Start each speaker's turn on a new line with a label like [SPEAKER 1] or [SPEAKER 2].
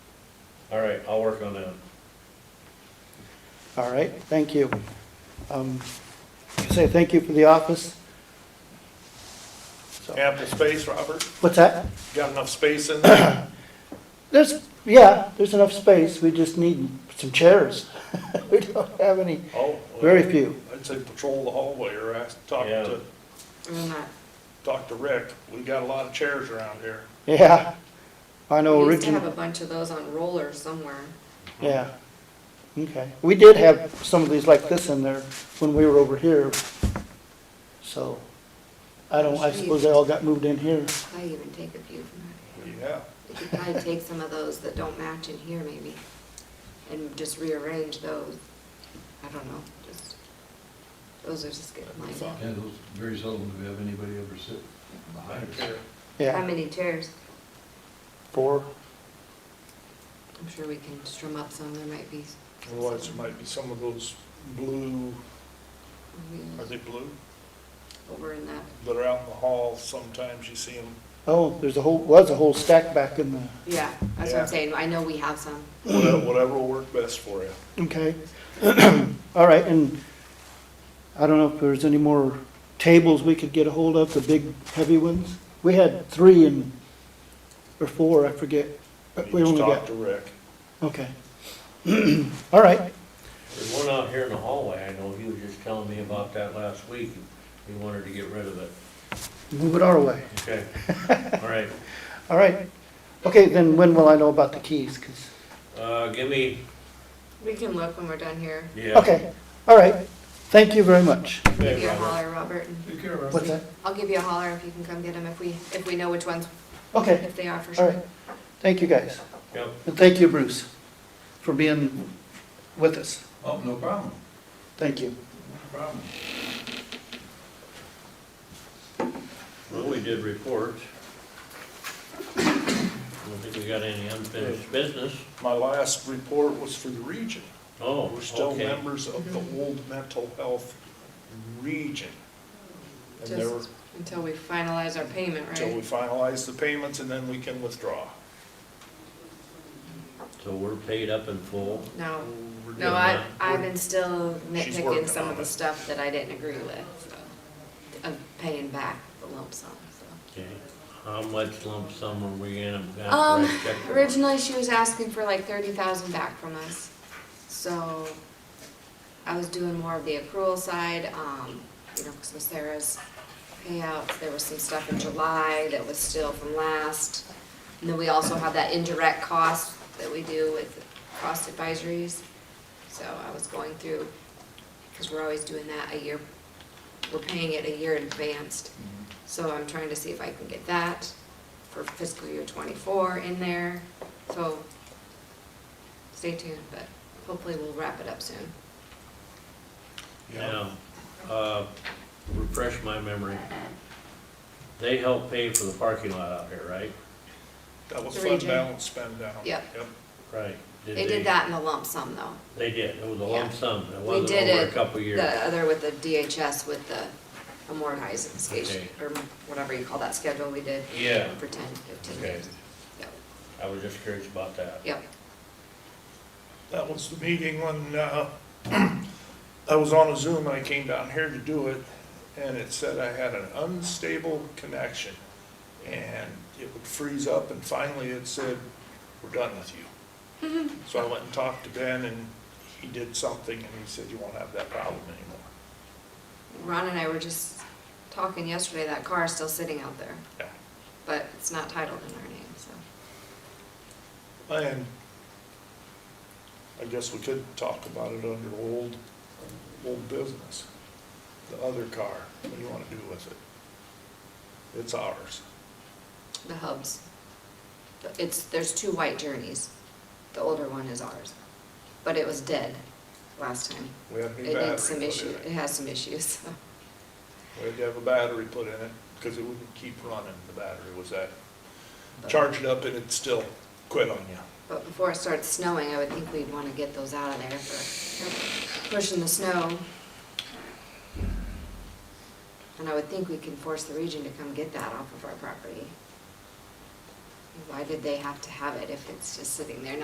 [SPEAKER 1] All right, I'll work on that.
[SPEAKER 2] All right, thank you. Um, Say thank you for the office. So-
[SPEAKER 3] Ample space, Robert?
[SPEAKER 2] What's that?
[SPEAKER 3] Got enough space in there?
[SPEAKER 2] There's, yeah, there's enough space, we just need some chairs. We don't have any,
[SPEAKER 3] Oh, well,
[SPEAKER 2] very few.
[SPEAKER 3] I'd say patrol the hallway or ask, talk
[SPEAKER 1] Yeah.
[SPEAKER 3] to, talk to Rick. We got a lot of chairs around here.
[SPEAKER 2] Yeah, I know
[SPEAKER 4] We used to have a
[SPEAKER 2] originally,
[SPEAKER 4] bunch of those on rollers somewhere.
[SPEAKER 2] yeah. Okay, we did have some of these like this in there when we were over here. So, I don't, I suppose they all got moved in here.
[SPEAKER 4] I even take a few from
[SPEAKER 3] Yeah,
[SPEAKER 4] that. You could probably take some of those that don't match in here maybe, and just rearrange those. I don't know, just, those are just good lines.
[SPEAKER 5] Yeah, those, very seldom do we have anybody ever sit behind us.
[SPEAKER 3] here.
[SPEAKER 4] How
[SPEAKER 2] Yeah,
[SPEAKER 4] many chairs?
[SPEAKER 2] four,
[SPEAKER 4] I'm sure we can strum up some, there might be.
[SPEAKER 3] Otherwise, there might be some of those blue, are they blue?
[SPEAKER 4] Over in that,
[SPEAKER 3] That are out in the hall. Sometimes you see them.
[SPEAKER 2] oh, there's a whole, was a whole stack back in the
[SPEAKER 4] yeah, that's what
[SPEAKER 3] Yeah.
[SPEAKER 4] I'm saying, I know we have some.
[SPEAKER 3] Whatever, whatever will work best for you.
[SPEAKER 2] Okay. All right, and I don't know if there's any more tables we could get a hold of, the big heavy ones? We had three and, or four, I forget. But we
[SPEAKER 3] You just
[SPEAKER 2] only got,
[SPEAKER 3] talk to Rick.
[SPEAKER 2] okay. All right,
[SPEAKER 1] There's one out here in the hallway, I know he was just telling me about that last week, he wanted to get rid of it.
[SPEAKER 2] move it our way.
[SPEAKER 1] Okay, all right,
[SPEAKER 2] All right. Okay, then when will I know about the keys? 'Cause-
[SPEAKER 1] uh, give me,
[SPEAKER 4] We can look when we're done here.
[SPEAKER 1] yeah.
[SPEAKER 2] okay, all right. Thank you very much.
[SPEAKER 4] Give
[SPEAKER 1] Okay,
[SPEAKER 4] you a
[SPEAKER 1] Robert.
[SPEAKER 4] holler, Robert, and
[SPEAKER 5] Take care of
[SPEAKER 2] What's that?
[SPEAKER 4] I'll give you a holler if you can come get them, if we, if we know which ones,
[SPEAKER 2] Okay,
[SPEAKER 4] if they are for
[SPEAKER 2] all
[SPEAKER 4] sure.
[SPEAKER 2] right. Thank you, guys.
[SPEAKER 1] Yep,
[SPEAKER 2] And thank you, Bruce, for being with us.
[SPEAKER 5] Oh, no problem,
[SPEAKER 2] Thank you.
[SPEAKER 5] no problem.
[SPEAKER 1] well, we did reports. I don't think we got any unfinished business.
[SPEAKER 3] My last report was for the region.
[SPEAKER 1] Oh,
[SPEAKER 3] We're still
[SPEAKER 1] okay.
[SPEAKER 3] members of the old mental health region. And there were,
[SPEAKER 4] Just until we finalize our payment,
[SPEAKER 3] until we
[SPEAKER 4] right?
[SPEAKER 3] finalize the payments and then we can withdraw.
[SPEAKER 1] So we're paid up in full.
[SPEAKER 4] No,
[SPEAKER 3] We're
[SPEAKER 4] no,
[SPEAKER 3] doing
[SPEAKER 4] I,
[SPEAKER 1] that.
[SPEAKER 4] I've been still
[SPEAKER 3] She's working
[SPEAKER 4] nitpicking some
[SPEAKER 3] on
[SPEAKER 4] of the
[SPEAKER 3] it.
[SPEAKER 4] stuff that I didn't agree with, so, of paying back the lump sum, so.
[SPEAKER 1] Okay. How much lump sum are we in? I've got to
[SPEAKER 4] Um,
[SPEAKER 1] write a check for it.
[SPEAKER 4] originally she was asking for like thirty thousand back from us, so I was doing more of the accrual side, um, you know, cause with Sarah's payouts, there was some stuff in July that was still from last. And then we also have that indirect cost that we do with cost advisories, so I was going through, cause we're always doing that a year, we're paying it a year in advance.
[SPEAKER 1] Mm-hmm.
[SPEAKER 4] So I'm trying to see if I can get that for fiscal year twenty-four in there, so stay tuned, but hopefully we'll wrap it up soon.
[SPEAKER 3] Yeah,
[SPEAKER 1] Now, uh, refresh my memory. They help pay for the parking lot out here, right?
[SPEAKER 3] that was
[SPEAKER 4] The
[SPEAKER 3] fund
[SPEAKER 4] region.
[SPEAKER 3] balance spend down.
[SPEAKER 4] Yep.
[SPEAKER 1] Right.
[SPEAKER 4] They did that in the lump sum though.
[SPEAKER 1] They did, it was a
[SPEAKER 4] Yeah.
[SPEAKER 1] lump sum, it
[SPEAKER 4] We
[SPEAKER 1] wasn't
[SPEAKER 4] did
[SPEAKER 1] over a
[SPEAKER 4] it,
[SPEAKER 1] couple of years.
[SPEAKER 4] the other with the DHS with the amortized
[SPEAKER 1] Okay.
[SPEAKER 4] station, or whatever you call that schedule we did.
[SPEAKER 1] Yeah.
[SPEAKER 4] For ten, fifteen
[SPEAKER 1] Okay.
[SPEAKER 4] years. Yep,
[SPEAKER 1] I was just curious about that.
[SPEAKER 4] yep,
[SPEAKER 3] That was the meeting when, uh, I was on a Zoom and I came down here to do it, and it said I had an unstable connection. And it would freeze up, and finally it said, we're done with you. So I went and talked to Ben, and he did something, and he said, you won't have that problem anymore.
[SPEAKER 4] Ron and I were just talking yesterday, that car is still sitting out there,
[SPEAKER 3] Yeah.
[SPEAKER 4] but it's not titled in our name, so.
[SPEAKER 3] And I guess we could talk about it under old, old business. The other car, what do you want to do with it? It's ours.
[SPEAKER 4] The hubs. The- It's, there's two white journeys. The older one is ours. But it was dead last time.
[SPEAKER 3] We had a new
[SPEAKER 4] It
[SPEAKER 3] battery
[SPEAKER 4] had some
[SPEAKER 3] put in
[SPEAKER 4] issue, it
[SPEAKER 3] it.
[SPEAKER 4] has some issues.
[SPEAKER 3] We had to have a battery put in it because it wouldn't keep running. The battery was that, charge it up and it'd still quit on you.
[SPEAKER 4] But before it starts snowing, I would think we'd want to get those out of there for pushing the snow. And I would think we can force the region to come get that off of our property. Why did they have to have it if it's just sitting there?